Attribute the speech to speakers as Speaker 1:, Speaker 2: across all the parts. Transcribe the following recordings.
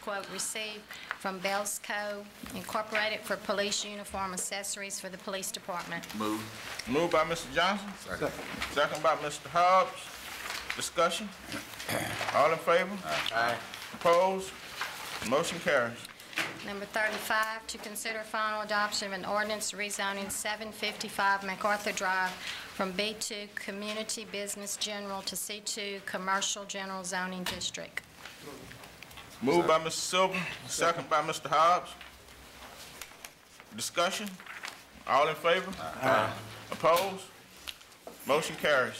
Speaker 1: quote received from Bell's Co. Incorporated for police uniform accessories for the police department.
Speaker 2: Move. Moved by Mr. Johnson. Second. by Mr. Hobbs. Discussion? All in favor? Aye. Opposed? Motion carries.
Speaker 1: Number 35, to consider final adoption of an ordinance rezoning 755 MacArthur Drive from B2 Community Business General to C2 Commercial General Zoning District.
Speaker 2: Moved by Mr. Silver, second by Mr. Hobbs. Discussion? All in favor? Aye. Opposed? Motion carries.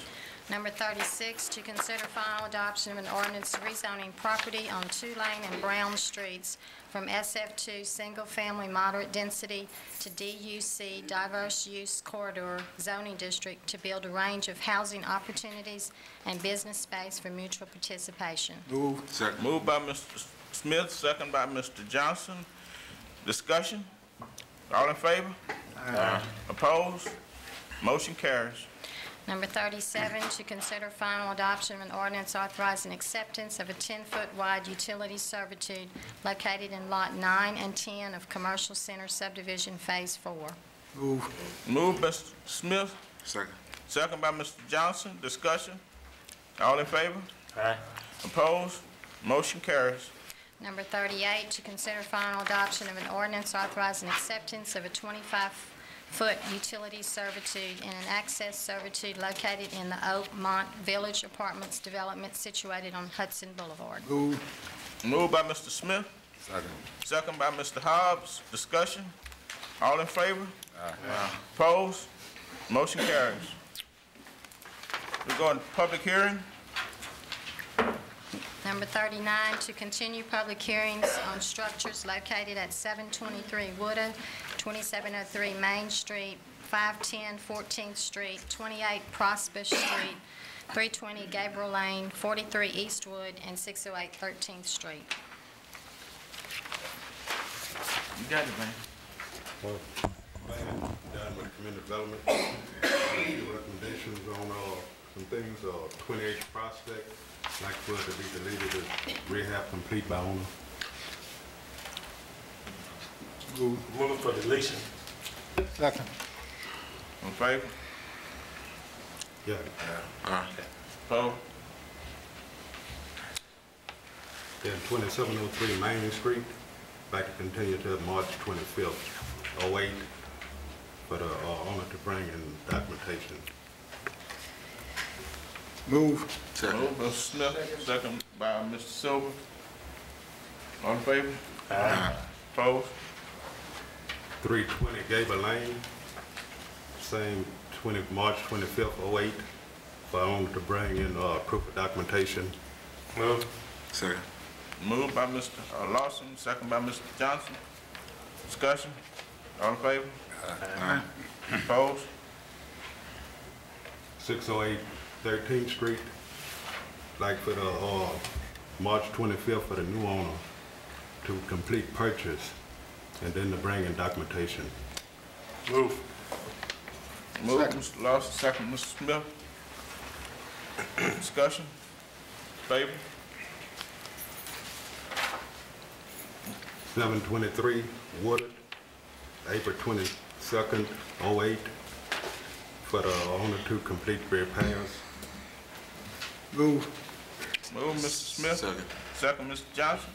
Speaker 1: Number 36, to consider final adoption of an ordinance rezoning property on Tulane and Brown Streets from SF2 Single Family Moderate Density to DUC Diverse Use Corridor Zoning District to build a range of housing opportunities and business space for mutual participation.
Speaker 2: Moved by Mr. Smith, second by Mr. Johnson. Discussion? All in favor? Aye. Opposed? Motion carries.
Speaker 1: Number 37, to consider final adoption of an ordinance authorizing acceptance of a 10-foot wide utility servitude located in Lot 9 and 10 of Commercial Center Subdivision Phase 4.
Speaker 2: Moved by Mr. Smith. Second. Second by Mr. Johnson. Discussion? All in favor?
Speaker 3: Aye.
Speaker 2: Opposed? Motion carries.
Speaker 1: Number 38, to consider final adoption of an ordinance authorizing acceptance of a 25-foot utility servitude and an access servitude located in the Oakmont Village Apartments development situated on Hudson Boulevard.
Speaker 2: Moved by Mr. Smith. Second. Second by Mr. Hobbs. Discussion? All in favor? Aye. Opposed? Motion carries. We go into public hearing.
Speaker 1: Number 39, to continue public hearings on structures located at 723 Wooded, 2703 Main Street, 510 14th Street, 28 Prosper Street, 320 Gabriel Lane, 43 Eastwood, and 608 13th Street.
Speaker 2: You got it, man.
Speaker 4: Done with community development. Recommendations on, uh, some things, uh, twenty-eight prospect, like for it to be deleted as rehab complete by owner.
Speaker 3: Move for deletion.
Speaker 5: Second.
Speaker 2: In favor?
Speaker 4: Yeah.
Speaker 2: Opposed?
Speaker 4: Then twenty-seven oh three Main Street, like to continue till March twenty-fifth, oh eight, for the, uh, owner to bring in documentation.
Speaker 5: Move.
Speaker 2: Moved by Mr. Smith, second by Mr. Silver. All in favor? Opposed?
Speaker 4: Three twenty Gable Lane, same twenty, March twenty-fifth, oh eight, for owner to bring in, uh, proof of documentation.
Speaker 3: Move.
Speaker 2: Moved by Mr. Lawson, second by Mr. Johnson. Discussion? All in favor? Opposed?
Speaker 4: 608 13th oh Street, like for the, uh, March 25th for the new owner to complete purchase and then to bring in documentation.
Speaker 3: Move.
Speaker 2: Moved, Mr. Lawson, second, Mr. Smith. Discussion? Favor?
Speaker 4: 723 Woodard, April 22nd, 08, for the owner to complete repairs.
Speaker 5: Move.
Speaker 2: Moved, Mr. Smith. Second. Second, Mr. Johnson.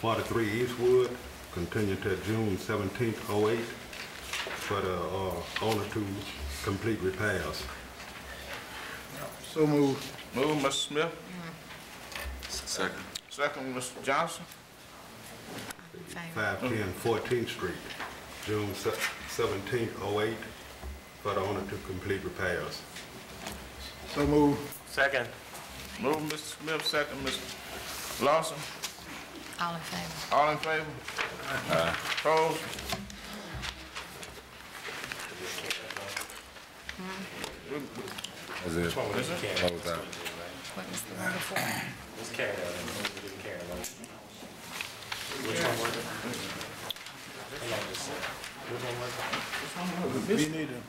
Speaker 4: 43 Eastwood, continue to June 17th, 08, for the, uh, owner to complete repairs.
Speaker 5: So move.
Speaker 2: Moved, Mr. Smith. Second. Second, Mr. Johnson.
Speaker 4: 510 14th Street, June se- 17th, 08, for the owner to complete repairs.
Speaker 5: So move.
Speaker 3: Second.
Speaker 2: Moved, Mr. Smith, second, Mr. Lawson.
Speaker 1: All in favor?
Speaker 2: All in favor? Opposed?
Speaker 6: Is it?
Speaker 2: Is it?
Speaker 6: What was that?
Speaker 1: What was the one before?
Speaker 3: Let's carry that. Let's carry that.
Speaker 5: We need a